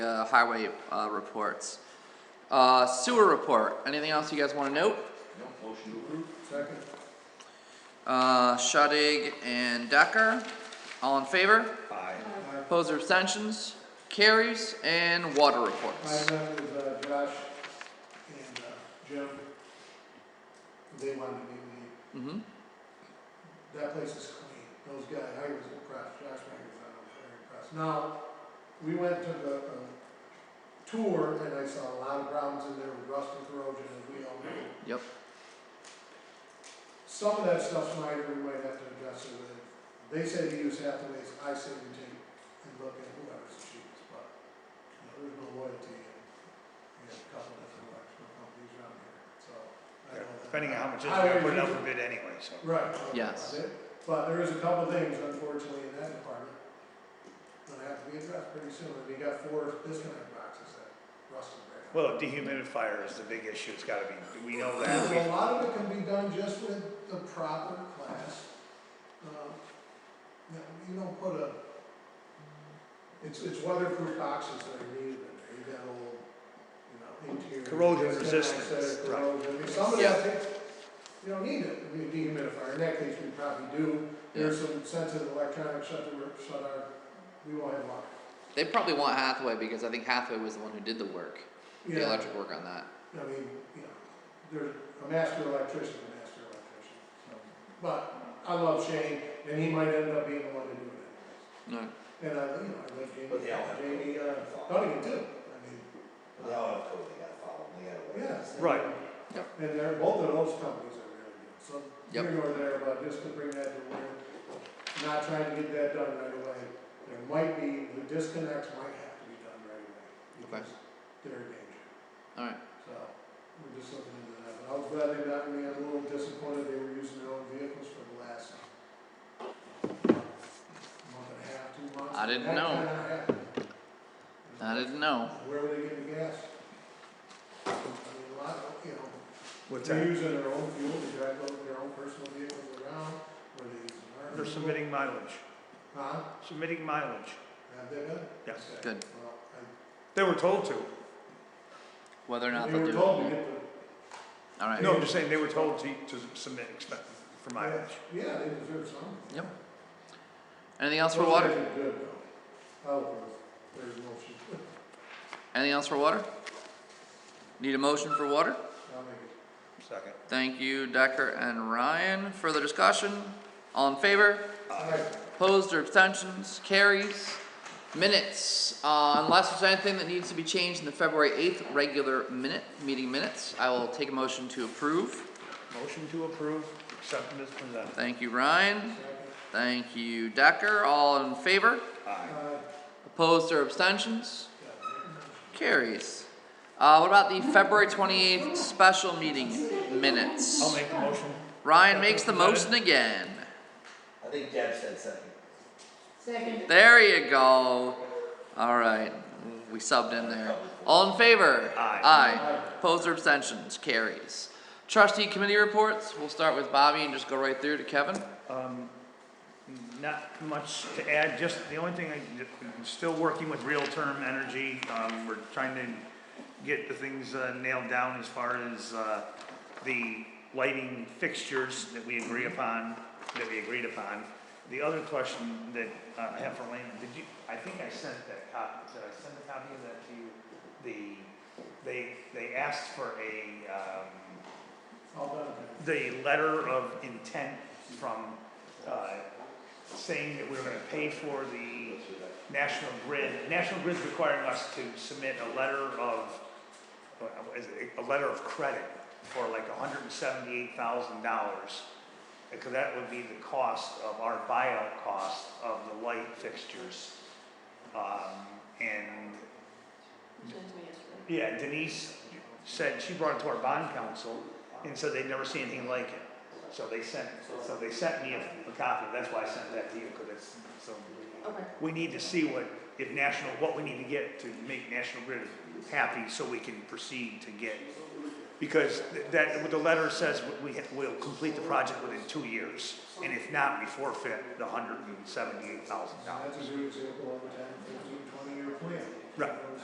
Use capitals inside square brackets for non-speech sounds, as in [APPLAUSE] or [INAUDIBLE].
highway uh, reports. Uh, Sewer report, anything else you guys want to note? Second. Uh, Shudig and Decker, all in favor? Aye. Opposed or abstentions? Carries and water My reports. name is uh, Josh and uh, Jim. They wanted to meet me. Mm-hmm, That place is clean. Those guys, I was impressed. Josh Maggie's, I was very impressed. Now, we went to the, uh, tour and I saw a lot of problems in there with rust and corrosion as we all know. yep, Some of that stuff's minor, we might have to address it with, they say to use Hathaway's, I say we take and look at whoever's the cheapest, but, you know, there's no loyalty in, we have a couple different electrical companies around here, so. I don't know. Depending on how much it is, I we're putting always out use for bid anyway, so. it. Right. okay, Yes. that's it. But there is a couple things unfortunately in that department that have to be addressed pretty soon, and we got four disconnect boxes that rusted right now. Well, dehumidifier is the big issue, it's gotta be, we know that, A we, lot of it can be done just with the proper class. Um, no, You don't put a, it's, it's weatherproof boxes that are needed, in there. you got old, you know, interior. Corrosion disconnects that are resistance, right. Corrosion, I mean, some of Yeah. that takes, you don't need it, I mean, dehumidifier, in that case, we probably do. There's some sensitive electronics shut the, work- shut our, we won't have one. they probably want Hathaway because I think Hathaway was the one who did the work, the Yeah. electric work on that. I mean, you know, there's a master electrician, a master electrician, so. But I love Shane, and he might end up being the one to do it. No, And I, you know, I like Jamie, But they all have- Jamie, uh, Dunnigan too, I mean, They all have code they gotta follow, they gotta Oh, work. yeah. Right. Yep. And they're, both of those companies are really good, so Yep. here nor there, but just to bring that to where, not trying to get that done right away. There might be, the disconnects might have to be done right Okay. away. because They're in danger. alright, So, we're just looking into that, but I was glad they got me, I'm a little disappointed they were using their own vehicles for the last month and a half, two months. I didn't That know. kinda happened. I didn't know. Where were they getting the gas? I mean, a lot, of, you know, what's they're that? using their own fuel, they drive their- their own personal vehicles around, were they using our? They're submitting mileage, Huh? submitting mileage, Have they been? yes. Okay. Good. Well, I- They were told to, whether or not They they'll do were it. told to get the Alright, no, I'm just saying, they were told to, to submit expense for mileage. Yeah, they deserve some. Yep. anything else for water? Those guys are good, though. I love those. There's a motion. Anything else for water? Need a motion for water? [LAUGHS] I'll make it. Second. Thank you, Decker and Ryan. Further discussion? All in favor? Uh, Opposed or abstentions? Carries. Minutes, uh, unless there's anything that needs to be changed in the February eighth regular minute, meeting minutes, I will take a motion to approve. Motion to approve, accept as presented. Thank you, Ryan. Thank you, Decker. All in favor? Aye. Opposed or abstentions? Carries. Uh, what about the February twenty-eighth special meeting minutes? I'll make the motion. Ryan makes the motion again. I think Deb said second. Second. There you go. All right, we subbed in there. All in favor? Aye. Aye. Opposed or abstentions? Carries. Trustee committee reports. We'll start with Bobby and just go right through to Kevin. Um, not much to add, just the only thing, I- I'm still working with Real Term Energy. Um, we're trying to get the things uh, nailed down as far as, uh, the lighting fixtures that we agree upon, that we agreed upon. The other question that uh, I have for Lana, did you, I think I sent that copy, did I send a copy of that to you? The, they, they asked for a, um, All done then. the letter of intent from, uh, saying that we we're gonna pay for the National Grid. National Grid's requiring us to submit a letter of, uh, is it- a letter of credit for like hundred and seventy-eight thousand dollars. Because that would be the cost of our buyout cost of the light fixtures. Um, and yeah, Denise said, she brought it to our bond council, and said they'd never seen anything like it. So they sent, so they sent me a, a copy, that's why I sent that to you, because it's, so. Okay. We need to see what, if national, what we need to get to make National Grid happy, so we can proceed to get. Because th- that, what the letter says, we, we- we'll complete the project within two years, and if not, we forfeit the hundred and seventy-eight thousand Now, dollars. That's a good example of a ten, fifteen, twenty year plan.